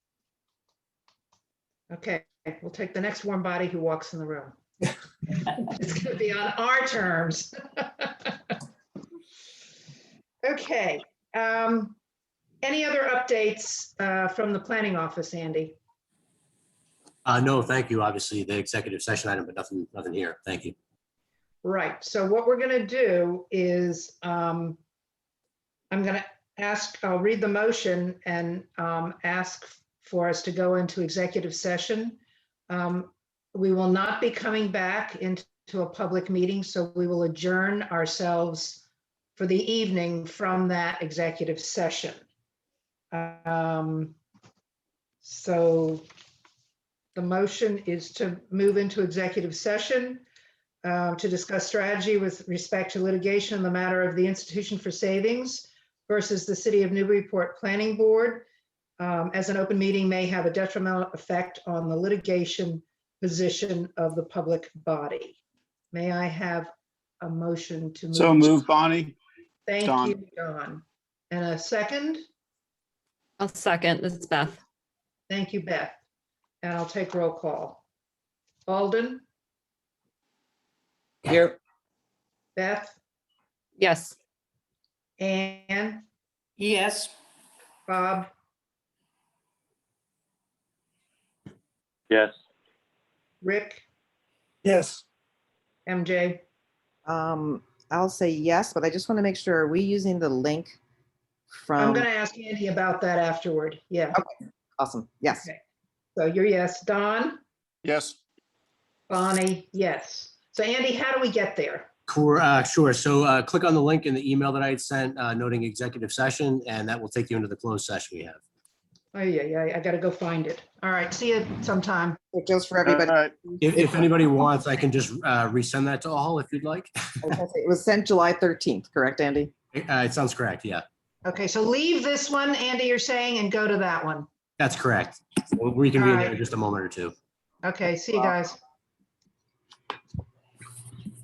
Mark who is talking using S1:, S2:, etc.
S1: Okay, we'll take the next warm body who walks in the room. It's going to be on our terms. Okay. um, Any other updates uh, from the planning office, Andy?
S2: Uh, no, thank you. Obviously, the executive session item, but nothing, nothing here. Thank you.
S1: Right, so what we're gonna do is, um, I'm gonna ask, I'll read the motion and, um, ask for us to go into executive session. Um, we will not be coming back into a public meeting, so we will adjourn ourselves for the evening from that executive session. Um, so the motion is to move into executive session um, to discuss strategy with respect to litigation in the matter of the Institution for Savings versus the City of Newburyport Planning Board, um, as an open meeting may have a detrimental effect on the litigation position of the public body. May I have a motion to?
S3: So move, Bonnie.
S1: Thank
S3: Dawn.
S1: you, Don. And a second?
S4: I'll second. This is Beth.
S1: Thank you, Beth. And I'll take roll call. Alden,
S5: Here,
S1: Beth,
S4: Yes.
S1: Ann,
S6: Yes.
S1: Bob,
S7: Yes.
S1: Rick,
S3: Yes.
S1: MJ.
S5: um, I'll say yes, but I just want to make sure, are we using the link
S1: I'm
S5: from,
S1: gonna ask Andy about that afterward. Yeah,
S5: awesome, yes.
S1: so you're yes. Don,
S3: Yes.
S1: Bonnie, yes. So Andy, how do we get there?
S2: Cool, uh, sure. So, uh, click on the link in the email that I had sent, uh, noting executive session, and that will take you into the closed session we have.
S1: Oh, yeah, yeah, I gotta go find it. All right, see you sometime.
S5: It goes for
S3: All
S1: Uh,
S5: everybody.
S3: right.
S2: If, if anybody wants, I can just, uh, resend that to all if you'd like.
S5: I was gonna say, It was sent July 13th, correct, Andy?
S2: Uh, it sounds correct. Yeah,
S1: Okay, so leave this one, Andy, you're saying, and go to that one.
S2: that's correct. We can be in there
S1: Alright.
S2: in just a moment or two.
S1: Okay, see you
S5: Wow.
S1: guys.